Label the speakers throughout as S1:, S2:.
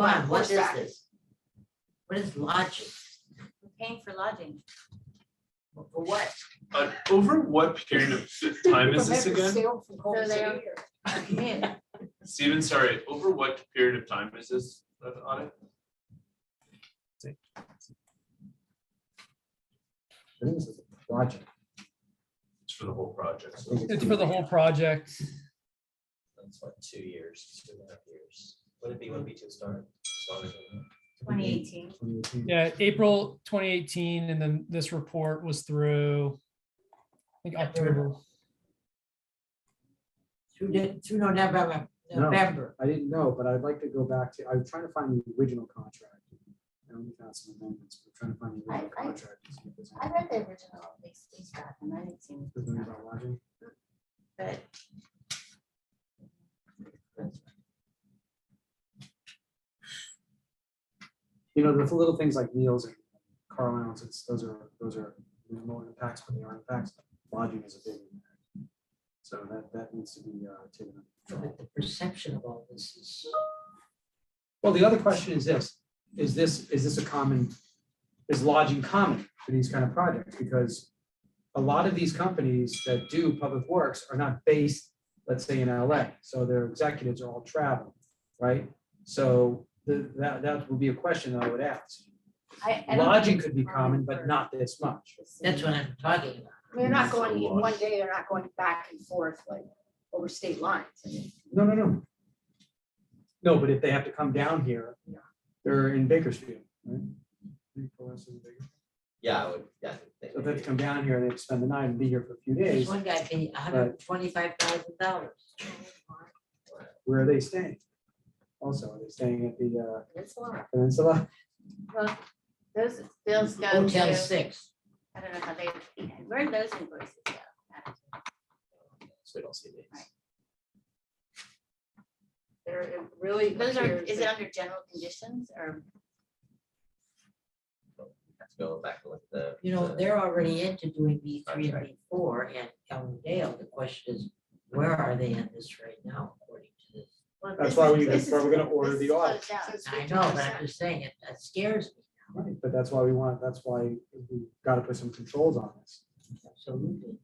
S1: Come on, what is
S2: horseback.
S1: this? What is lodging?
S3: We're paying for lodging.
S1: For what?
S4: But Uh, over what period of time is this again?
S3: So they are- Yeah,
S4: Steven, sorry, over what period of time is this uh, audit?
S5: I think this is a project.
S4: It's for the whole project.
S5: I
S4: so-
S5: think
S6: It's for the whole project.
S7: That's what, two years, two and a half years. Would it be when B two started?
S3: Twenty eighteen.
S5: 2018.
S6: Yeah, April twenty eighteen, and then this report was through. I think October.
S1: Through, the- through November,
S5: No.
S1: November.
S5: I didn't know, but I'd like to go back to, I'm trying to find the original contract. I only found some amendments, but I'm trying to find the original
S3: I- I-
S5: contract. to see if there's
S3: I
S5: anything-
S3: read the original lease lease back and I didn't see anything.
S5: there's anything about lodging.
S1: But-
S5: You know, the little things like meals and car allowances, those are, those are minimal impacts, but they are impacts. Lodging is a big impact. So that, that needs to be uh, taken. up.
S1: But the perception of all this is,
S5: Well, the other question is this, is this, is this a common, is lodging common for these kind of projects? Because a lot of these companies that do public works are not based, let's say in LA, so their executives are all traveling, right? So the, that, that would be a question that I would ask.
S2: I, I don't
S5: Lodging
S2: think
S5: could be common, but not this much.
S2: it's-
S1: that's what I'm talking about.
S2: They're not
S4: So
S2: going,
S4: lost.
S2: one day they're not going back and forth like over state lines. I mean,
S5: No, no, no. No, but if they have to come down here, they're in Bakersfield, right?
S7: Yeah, I would, yeah. I think
S5: So they have to
S7: maybe.
S5: come down here, they have to spend the night and be here for a few
S1: There's
S5: days.
S1: one guy paid hundred and twenty-five thousand dollars.
S5: where are they staying? Also, are they staying at the
S2: It's a lot.
S5: uh, Peninsula?
S3: Well, those, those go
S1: Hotel
S3: to,
S1: six.
S3: I don't know how they, where did those invoices go?
S7: So we don't see these.
S2: They're it really.
S3: Those are,
S2: appears
S3: is it
S2: that-
S3: under general conditions or?
S7: Have to Go back and look at the.
S1: You know,
S7: the-
S1: they're already into doing B three and
S7: Contract.
S1: B four and Elm Dale. The question is, where are they in this right now according to this?
S3: well,
S5: That's
S3: this
S5: why
S3: is-
S5: we-
S3: this
S5: that's why
S3: is-
S5: we're gonna order
S3: this
S5: the
S3: is closed
S5: audit.
S3: out.
S2: So it's
S1: I know, but
S2: 50%.
S1: I'm just saying it, that scares me.
S5: Right, but that's why we want, that's why we gotta put some controls on this.
S1: Absolutely.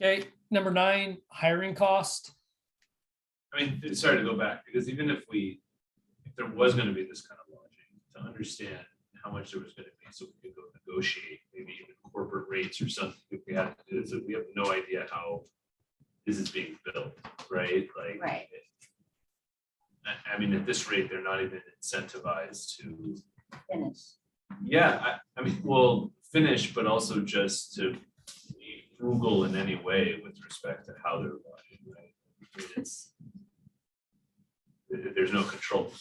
S6: Okay, number nine, hiring cost.
S4: I mean, th- sorry to go back, because even if we, if there was gonna be this kind of lodging, to understand how much there was gonna be, so we could go negotiate, maybe even corporate rates or something, if we had to do this, we have no idea how this is being built, right? Like.
S3: Right.
S4: I, I mean, at this rate, they're not even incentivized to,
S3: Finish.
S4: yeah, I, I mean, well, finish, but also just to be frugal in any way with respect to how they're lodging, right? I mean, It's, there- there's no control.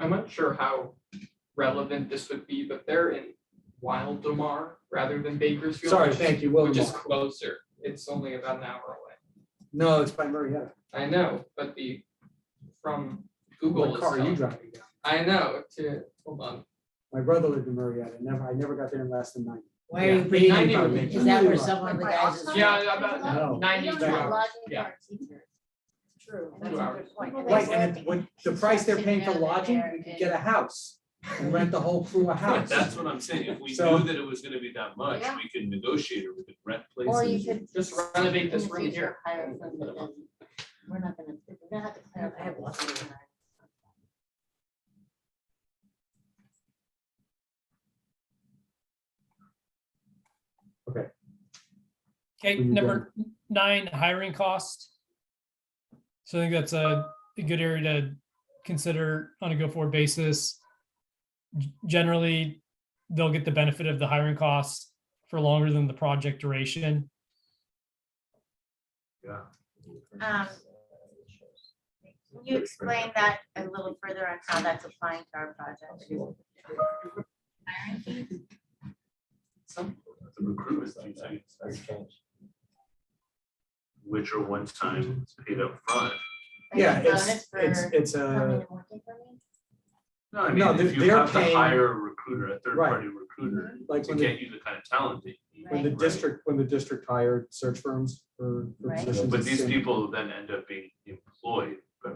S8: I'm not sure how relevant this would be, but they're in Wildemar rather than Bakersfield.
S5: Sorry,
S8: which is-
S5: thank you,
S8: Which is
S5: Willamar.
S8: closer. It's only about an hour away.
S5: No, it's by Marietta.
S8: I know, but the, from Google
S5: What
S8: is.
S5: car are you
S8: telling-
S5: driving down?
S8: I know, to, hold on.
S5: My brother lived in Marietta, never, I never got there in less than ninety.
S1: Why are you
S8: Yeah.
S1: bringing,
S8: Ninety
S1: up-
S8: would be-
S1: is that where
S5: Like
S1: someone of the
S2: my
S1: guys is?
S2: office?
S8: Yeah, about
S5: No.
S8: ninety
S3: We
S8: two
S3: don't have
S8: hours.
S3: lodging for
S8: Yeah,
S3: our teachers.
S2: True.
S3: That's a
S8: Two hours.
S3: good point. And they
S5: Right,
S3: work
S5: and then what, the price they're paying for lodging, we could get a house and rent the whole crew a
S4: But
S5: house.
S4: that's what I'm saying, if we
S5: So-
S4: knew that it was gonna be that much,
S3: Yeah.
S4: we could negotiate or we could rent places.
S3: Or you could.
S8: Just renovate
S3: in
S8: this
S3: the
S8: room
S3: future
S8: here.
S3: Hire from the, we're not gonna, we're gonna have to clarify. this.
S6: Okay,
S5: Where you
S6: number nine, hiring cost. So I think that's a a good area to consider on a go-forward basis. G- Generally, they'll get the benefit of the hiring costs for longer than the project duration.
S4: Yeah.
S3: Um, Can you explain that a little further on how that's applying to our project?
S4: Some, the recruitment, fees, I-
S7: That's changed.
S4: which are one time paid up front.
S5: Yeah,
S3: Bonus
S5: it's,
S3: for
S5: it's, it's uh,
S1: Uh,
S3: coming
S5: a,
S3: and working for me?
S4: No, I
S5: No,
S4: mean, if
S5: they're-
S4: you
S5: they're
S4: have to
S5: paying-
S4: hire a recruiter, a third
S5: Right.
S4: party recruiter,
S5: like
S4: to
S5: when the,
S4: get you the kind of talent that you need.
S5: when the
S4: right?
S5: district, when the district hired search firms for for
S3: Right.
S5: positions.
S4: But
S5: it's
S4: these
S5: in-
S4: people then end up being employed.